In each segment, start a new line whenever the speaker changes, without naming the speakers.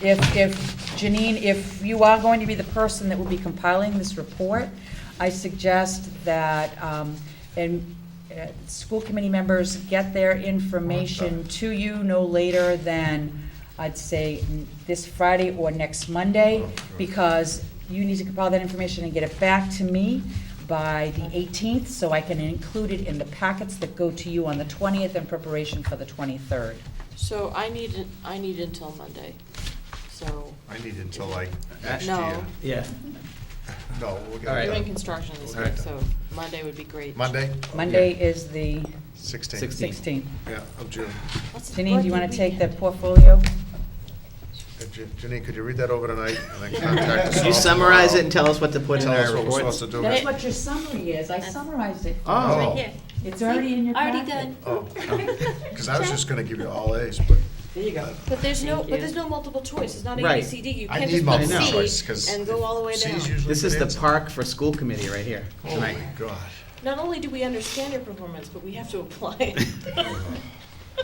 If, if, Janine, if you are going to be the person that will be compiling this report, I suggest that, um, and, uh, school committee members get their information to you no later than, I'd say, n- this Friday or next Monday, because you need to compile that information and get it back to me by the 18th, so I can include it in the packets that go to you on the 20th in preparation for the 23rd.
So I need, I need until Monday, so.
I need until like next
No.
year.
Yeah.
No, we'll
All
get
right.
it
Doing
done.
construction this
Alright.
week, so Monday would be great.
Monday?
Monday is the
Sixteenth,
Sixteenth.
16th.
yeah, of June.
What's the
Janine, do you want to
birthday
take the
weekend?
portfolio?
Uh, Jan- Janine, could you read that over tonight and then contact us
Could
all
you summarize it
tomorrow?
and tell us what to put in
Tell us
our
what we're supposed
reports?
to do.
That's what your summary is. I summarized it.
Oh.
Right here.
It's already in your
Already
packet.
done.
Because I was just gonna give you all A's, but
There you go.
But there's no, but there's no multiple choice, it's not A, B,
Right.
C, D, you
I
can't
need
just put
multiple
I know.
choice,
C
because.
and go all the way down.
This is the park for school committee right here
Oh my
tonight.
God.
Not only do we understand your performance, but we have to apply it.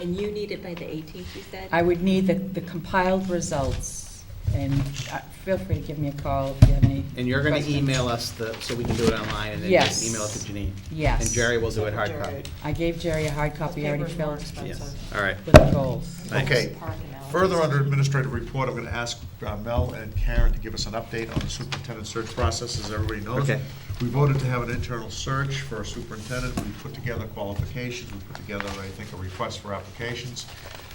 And you need it by the 18th, you said?
I would need the the compiled results, and uh, feel free to give me a call if you have any.
And you're gonna
questions.
email us the, so we can do it online and then just
Yes.
email it to Janine.
Yes.
And Jerry will do it hard copy.
Jared.
I gave Jerry a hard copy, I already
Paper's more
filled
Yes,
expensive.
all right.
with the goals.
Thanks.
Okay,
Park analysis.
further under administrative report, I'm gonna ask uh, Mel and Karen to give us an update on the superintendent search process, as everybody knows.
Okay.
We voted to have an internal search for a superintendent, we put together qualifications, we put together, I think, a request for applications.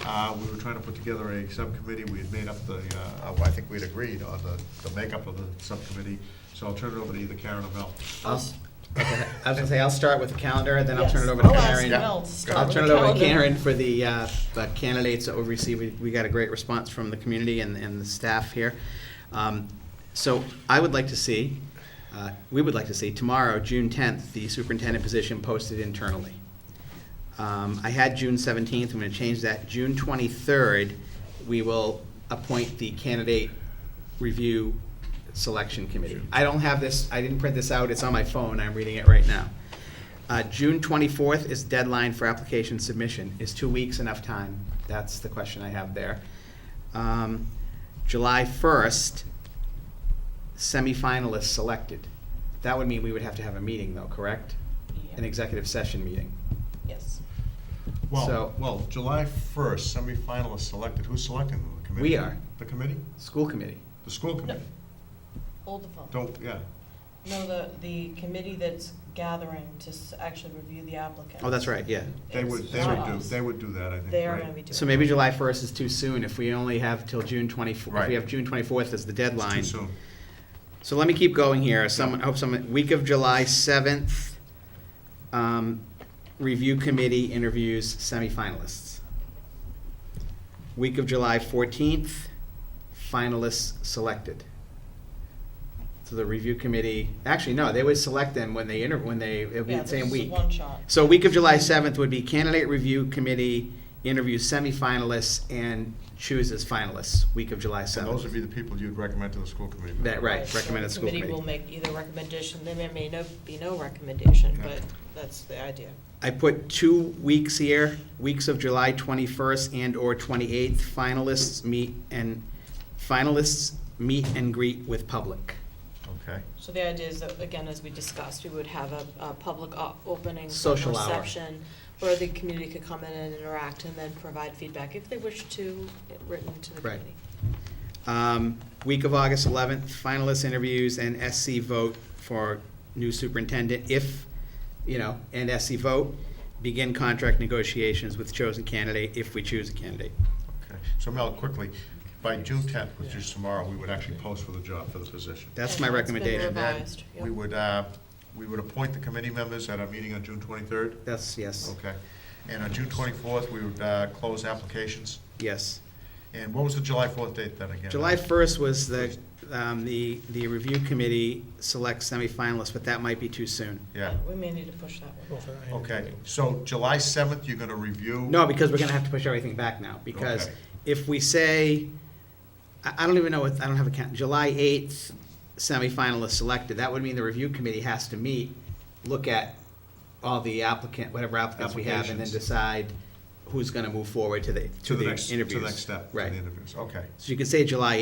Uh, we were trying to put together a subcommittee, we had made up the, uh, well, I think we'd agreed on the, the makeup of the subcommittee, so I'll turn it over to either Karen or Mel.
I'll s- okay, I was gonna say, I'll start with the calendar, then I'll turn
Yes.
it
Oh,
over to
I'll ask
Karen.
Mel to start
I'll
with
turn it
the
over to
calendar.
Karen for the uh, the candidates that we received. We- We got a great response from the community and, and the staff here. Um, So I would like to see, uh, we would like to see tomorrow, June 10th, the superintendent position posted internally. Um, I had June 17th, I'm going to change that. June 23rd, we will appoint the candidate review selection committee. I don't have this, I didn't print this out, it's on my phone, I'm reading it right now. Uh, June 24th is deadline for application submission. Is two weeks enough time? That's the question I have there. Um, July 1st, semifinalists selected. That would mean we would have to have a meeting though, correct? An executive session meeting.
Yes.
Well,
So-
well, July first, semifinalists selected, who's selecting them? the committee?
We are.
The committee?
School committee.
The school committee?
Hold the phone.
Don't, yeah.
No, the, the committee that's gathering to s- actually review the applicant.
Oh, that's right, yeah.
They would, they would do, they would do that, I think.
They are
right?
gonna be doing.
So maybe July 1st is too soon if we only have till June 24th. If
Right.
we have June 24th as the
It's
deadline.
too soon.
So let me keep going here. Someone, I hope someone, week of July 7th, um, review committee interviews semifinalists. Week of July 14th, finalists selected. So the review committee, actually, no, they would select them when they inter, when they, it would be
Yeah,
the
this
same
is
week.
one shot.
So week of July 7th would be candidate review committee interviews semifinalists and chooses finalists, week of July 7th.
And those would be the people you'd recommend to the school committee. members.
That, right,
so
recommended
the
school committee.
will make either recommendation, there may- may no, be no recommendation,
Yeah.
but that's the idea.
I put two weeks here, weeks of July 21st and/or 28th, finalists meet and, finalists meet and greet with public.
Okay.
So the idea is that, again, as we discussed, we would have a, a public o- opening. for
Social hour.
reception Where the community could come in and interact and then provide feedback if they wish to, written to the
Right.
committee.
Um, Week of August 11th, finalists interviews and SC vote for new superintendent, if, you know, and SC vote, begin contract negotiations with chosen candidate, if we choose a candidate.
Okay. So Mel, quickly, by June tenth, which is tomorrow, we would actually post for the job, for the position.
That's my
And that's been
recommendation.
And then
Revised, yep.
we would, uh, we would appoint the committee members at our meeting on June twenty-third.
That's, yes,
Okay. And on June twenty-fourth, we would uh, close applications.
yes.
And what was the July fourth date then again?
July 1st was the, um, the, the review committee selects semifinalists, but that might be too soon.
Yeah.
We may need to push that one.
Okay. So July seventh, you're gonna review?
No, because we're gonna have to push everything back now, because
Okay.
if we say, I, I don't even know what, I don't have a count, July eighth semifinalist selected, that would mean the review committee has to meet, look at all the applicant, whatever applicants we have, and then
Applications.
decide
who's gonna move forward to the,
To
to
the
the
next, to
interviews.
the next step, to the
Right.
interviews, okay.
So you could say July